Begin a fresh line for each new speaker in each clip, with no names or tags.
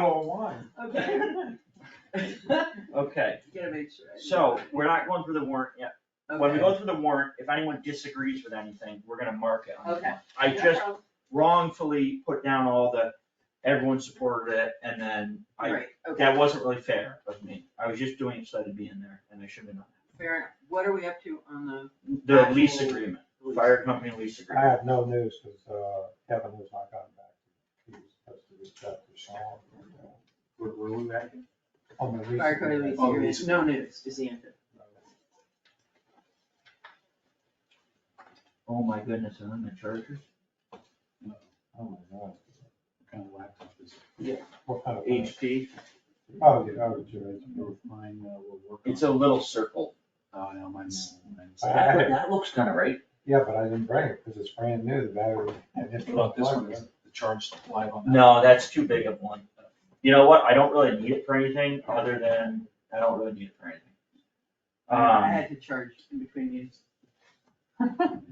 bottle of wine.
Okay.
Okay,
Gotta make sure. I-
so we're not going through the warrant yet. When we
Okay.
go through the warrant, if anyone disagrees with anything, we're gonna mark it on the
Okay.
warrant. I just wrongfully put down all the, everyone supported it, and then I,
Right, okay,
that wasn't really fair of me. I was just doing it so to be in there, and I should have done
fair enough. What are we up to on the?
that. The lease
Actual-
agreement, fire company lease
I
agreement.
have no news, because, uh, Kevin has not gotten back. He was supposed to reach out to Sean. uh,
Where, where we at?
On the lease.
Fire code lease
Oh,
agreement,
lease.
no news is the answer.
Oh my goodness, and then the chargers?
Oh, my God.
What kind of laptop is it?
What
Uh,
kind of?
HP,
Oh, yeah, oh, Jerry.
Both mine, uh, will work.
it's
on.
a little circle.
Oh, no, mine's, mine's.
I have it.
That looks kinda right.
Yeah, but I didn't bring it, because it's brand new, the battery. I didn't
What about this
plug
one,
it.
is the charge live on that?
No, that's too big of one. You know what, I don't really need it for anything, other than, I don't really need it for anything.
I
Um,
had to charge in between news.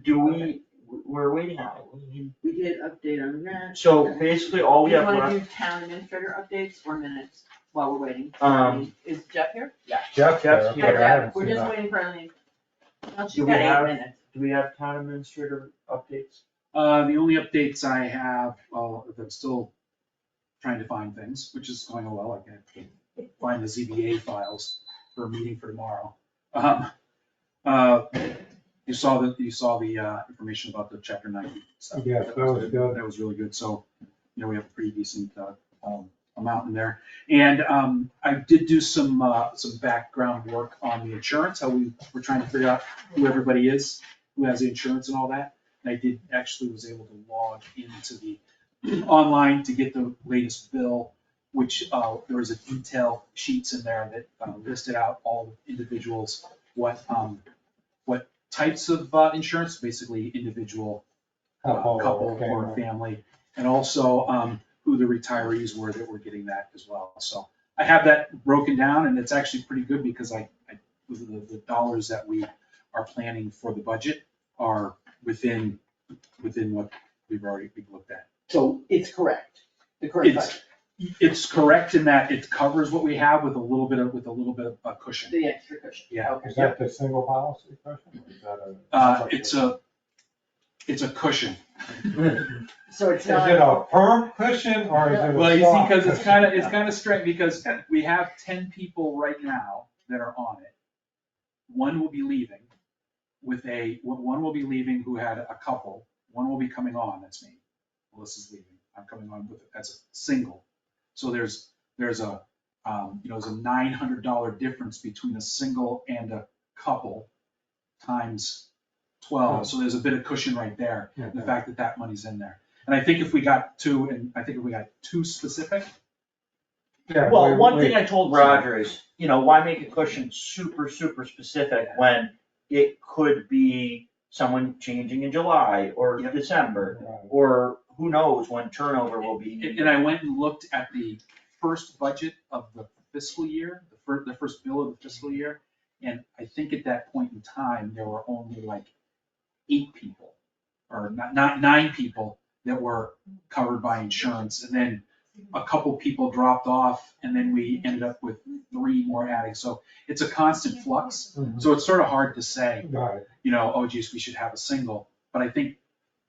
do we, we're waiting on it.
We did update on that.
So basically, all we have
Do you wanna
left,
do town administrator updates or minutes while we're waiting?
Um,
Is Jeff here?
Jeff,
Jeff's
Jeff,
Yeah, here.
I haven't
We're
seen
just
that.
waiting for Eileen. Well, she's
Do we
got
have-
eight minutes.
do we have town administrator updates?
Uh, the only updates I have, well, if I'm still trying to find things, which is going well, I can find the ZBA files for a meeting for tomorrow. Um, uh, You saw the, you saw the uh, information about the chapter ninety stuff.
Yeah, that was good.
That was really good, so, you know, we have a pretty decent uh, um, amount in there. And um, I did do some, uh, some background work on the insurance, how we, we're trying to figure out who everybody is, who has the insurance and all that. And I did, actually was able to log into the online to get the latest bill, which, uh, there was a detail sheets in there that uh, listed out all the individuals, what, um, what types of, uh, insurance, basically individual, uh,
Couple,
couple
Oh, okay.
or family. And also, um, who the retirees were that were getting that as well. So I have that broken down and it's actually pretty good because I, I, the, the dollars that we are planning for the budget are within, within what we've already, we've looked at.
So it's correct, the correct
It's,
budget.
it's correct in that it covers what we have with a little bit of, with a little bit of a cushion.
the extra cushion.
Yeah.
Okay.
Is that the single policy question? or is that a-
Uh, it's a, it's a cushion.
So it's
Is
not.
it a firm cushion or is it a
Well, you see,
soft
because it's
cushion?
kind of, it's kind of strange, because we have ten people right now that are on it. One will be leaving with a, one will be leaving who had a couple, one will be coming on, that's me. Melissa's leaving, I'm coming on with, as a single. So there's, there's a, um, you know, there's a nine hundred dollar difference between a single and a couple times twelve, so there's a bit of cushion right there
Yeah.
the fact that that money's in there. And I think if we got two, and I think if we got two specific,
Yeah,
Well,
we-
one
we-
thing I told Roger is, you know, why make a cushion super, super specific when it could be someone changing in July or
Yep.
December?
Right.
Or who knows when turnover will
and
be.
and I went and looked at the first budget of the fiscal year, the first, the first bill of the fiscal year, and I think at that point in time, there were only like eight people, or not, not nine people that were covered by insurance, and then a couple people dropped off, and then we ended up with three more adding, so it's a constant flux,
Mhm.
so it's sort of hard to say.
Right,
you know, oh geez, we should have a single. But I think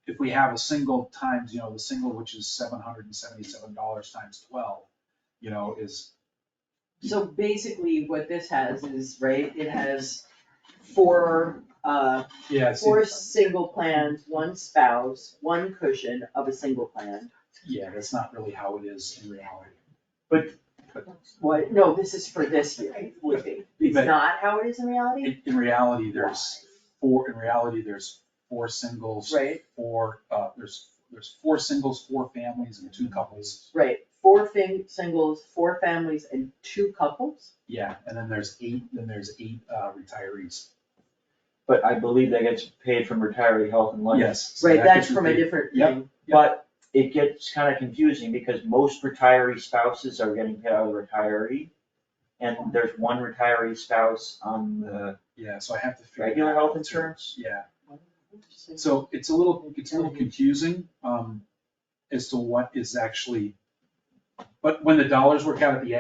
if we have a single times, you know, the single, which is seven hundred and seventy-seven dollars times twelve, you know, is,
So basically what this has is, right, it has four, uh,
yeah,
four single plans, one spouse, one cushion of a single plan.
yeah, that's not really how it is in reality.
What, no, this is for this year, it would be. It's
But
not how it is in reality,
in, in reality, there's four, in reality, there's four singles,
right?
four, uh, there's, there's four singles, four families and two couples.
Right, four fing, singles, four families and two couples?
Yeah, and then there's eight, then there's eight, uh, retirees.
But I believe that gets paid from retiree health and life.
Yes. so
Right,
that
that's
gets
from a
repeated.
different
Yep.
thing.
But it gets kind of confusing because most retiree spouses are getting paid out of retiree. And there's one retiree spouse on the
Yeah, so I have to figure.
regular
that out
health
too.
insurance.
Yeah. So it's a little, it's a little confusing, um, as to what is actually But when the dollars work out at the